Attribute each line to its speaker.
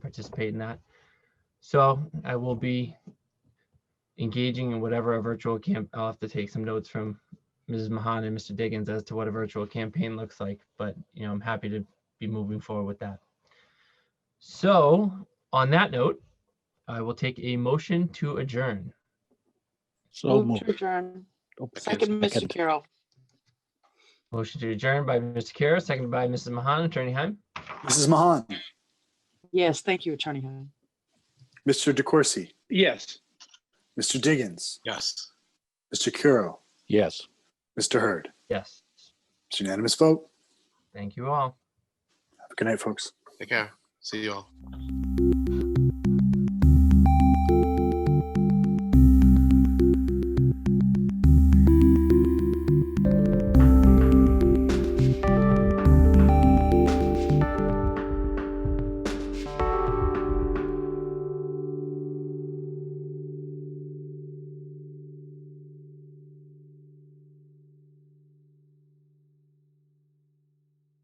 Speaker 1: participate in that. So I will be engaging in whatever a virtual camp, I'll have to take some notes from Mrs. Mahan and Mr. Diggins as to what a virtual campaign looks like, but, you know, I'm happy to be moving forward with that. So on that note, I will take a motion to adjourn.
Speaker 2: So
Speaker 3: Move to
Speaker 2: moved.
Speaker 3: adjourn.
Speaker 2: Oh,
Speaker 3: Second, Mr.
Speaker 2: second.
Speaker 3: Carroll.
Speaker 1: Motion to adjourn by Mr. Kara, seconded by Mrs. Mahan. Attorney Heim?
Speaker 4: Mrs. Mahan,
Speaker 3: Yes, thank you, Attorney Heim.
Speaker 4: Mr. DeCoursey,
Speaker 5: Yes.
Speaker 4: Mr. Diggins,
Speaker 5: Yes.
Speaker 4: Mr. Curo,
Speaker 2: Yes.
Speaker 4: Mr. Hurd.
Speaker 1: Yes.
Speaker 4: It's unanimous vote.
Speaker 1: Thank you all.
Speaker 4: Have a good night, folks.
Speaker 5: Take care. See you all.